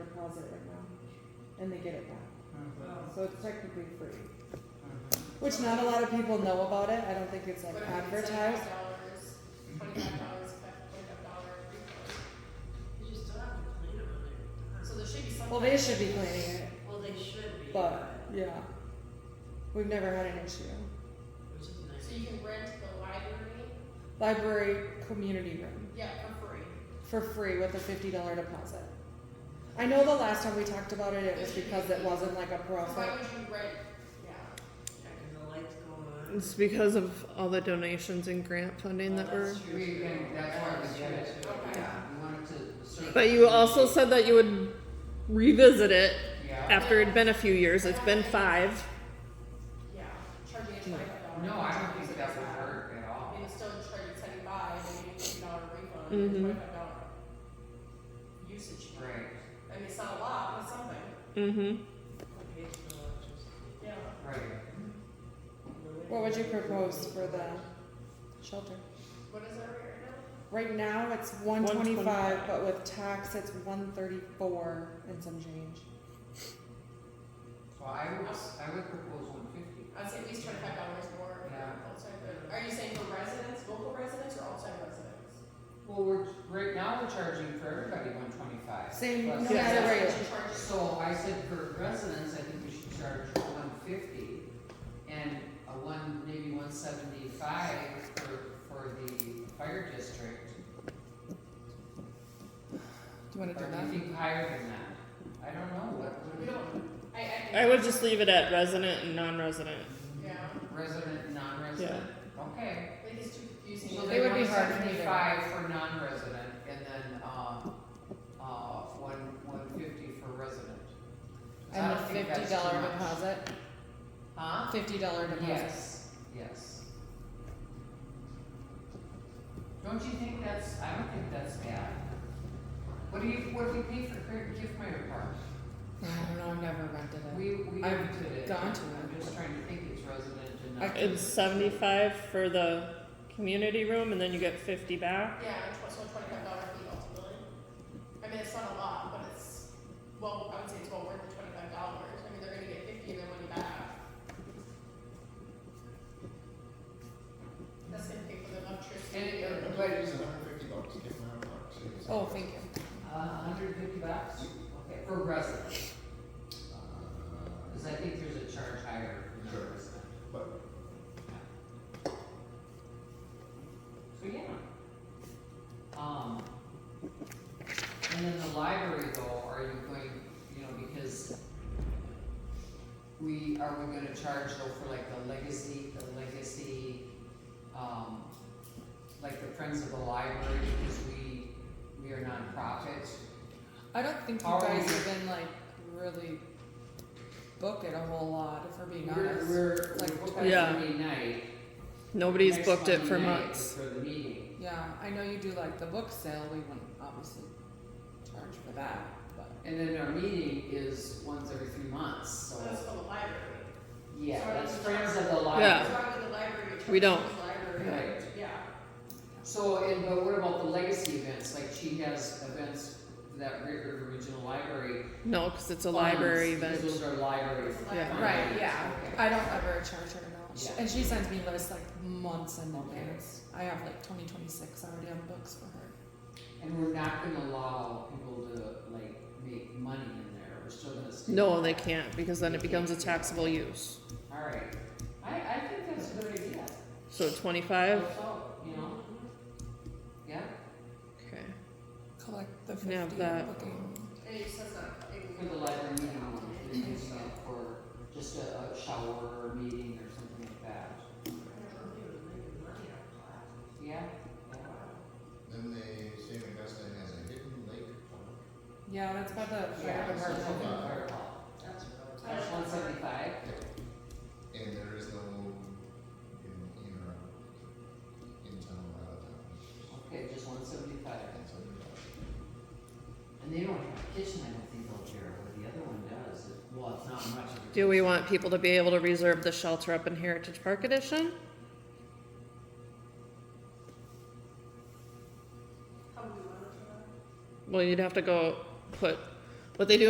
deposit right now, and they get it back. So it's technically free, which not a lot of people know about it. I don't think it's like advertised. Dollars, twenty-five dollars, twenty-five dollar refund. You just don't have to clean them when they're So done. there should be some. Well, they should be cleaning it, Well, they should be. but yeah, we've never had an issue. Which is nice. So you can rent the library, Library community room yeah, for free. for free with a fifty dollar deposit. I know the last time we talked about it, it was because it wasn't like a So Why profit. would you rent, Yeah, yeah, 'cause the lights go on. It's because of all the donations and grant funding Oh, that were. that's true. We can, that's why we did it. Okay. Yeah, we wanted to. serve- But you also said that you would revisit it Yeah. after it'd been a few years. It's been five. yeah, charging a twenty-five dollar. No, I don't think that would work at all. You can still charge it seventy-five, and you get a fifty dollar refund, Mhm. and twenty-five dollar usage. fee. Right, I mean, it's not a lot, but something, Mm-hmm. Okay, it's the electricity. yeah. right. What would you propose for the shelter? What is that right now? Right now, it's one twenty-five, but with tax, it's one thirty-four and some change. So I would, I would propose one fifty. I'd say at least twenty-five dollars more for Yeah. outside, re- are you saying for residents, local residents, or outside residents? Well, we're, right now we're charging for everybody one twenty-five. Same, no Plus- Because matter that's where. what you charge So I said for residents, I think we should charge one fifty and a one, maybe one seventy-five for, for the fire district. Do you wanna Or do do you that? think higher than that? I don't know, what, We what, don't, I, I. think- I would just leave it at resident and non-resident. Yeah, resident, non-resident? Okay. I think it's too confusing. So It they would want be hard to do. seventy-five for non-resident and then, um, uh, one, one fifty for resident. So I And a don't think fifty that's too dollar much. deposit, Huh? fifty dollar deposit. Yes, yes. Don't you think that's, I don't think that's bad. What do you, what do we pay for Cra- Kiffmeyer Park? I don't know, I've never rented it. We, we I've rented it. gone to I'm it. just trying to think it's resident and I not. It's seventy-five for the community room, and then you get fifty back. Yeah, and tw- so twenty-five dollar fee ultimately. I mean, it's not a lot, but it's, well, I would say it's well worth the twenty-five dollars. I mean, they're gonna get fifty of their money back. That's gonna pay for the electricity. And it- or- but- It's hundred fifty bucks, get my own box. it's- Oh, thank you. A hundred fifty bucks? Okay, for resident. Uh, Cause I think there's a charge higher for Sure. non-resident. But So yeah. Um, and then the library though, are you going, you know, because we, are we gonna charge though for like the legacy, the legacy, um, like the Friends of the Library, because we, we are nonprofit. I don't think you Are guys we- even like really book it a whole lot, if we're being honest. We're, we're, Like- we're booked on Yeah. Sunday night. Nobody's next booked it for Monday night months. For the meeting. Yeah, I know you do like the book sale, we wouldn't obviously charge for that, but. And then our meeting is once every three months, so, That's for the library. yeah, So that's it's- Friends of the Library. Yeah. It's not with the library. it We charges don't. the Library, Right. yeah. So, and, but what about the legacy events, like she has events for that Great River Regional Library. No, because it's a funds, library because event. Those are library. It's a Yeah. library. Right, Right, yeah. okay. I don't ever charge her now. She- Yeah. And she sends me lists like months in Okay. advance. I have like 2026 already on books for her. And we're not gonna allow people to like make money in there, we're still gonna. stay No, with they that. can't because then it becomes a taxable use. Alright, I, I think that's a good idea. So twenty-five. So, you know, yeah, Okay. Collect the Can I have 50 that? booking. And it says that. it- for the library meeting, we can do stuff for just a, a shower or a meeting or something like that, yeah? Yeah. then they say Augusta has a hidden lake park. Yeah, that's by the Yeah, fire it's just department. something Yeah. for- That's what I was- That's one seventy-five. And there is no, in, in, uh, in town, or out of town. Okay, just one seventy-five. That's what it is. And they don't have a kitchen, I don't think, over here, but the other one does. It- Well, it's not much of a. Do we want people to be able to reserve the shelter up in Heritage Park Edition? How do we monitor that? Well, you'd have to go put, what they do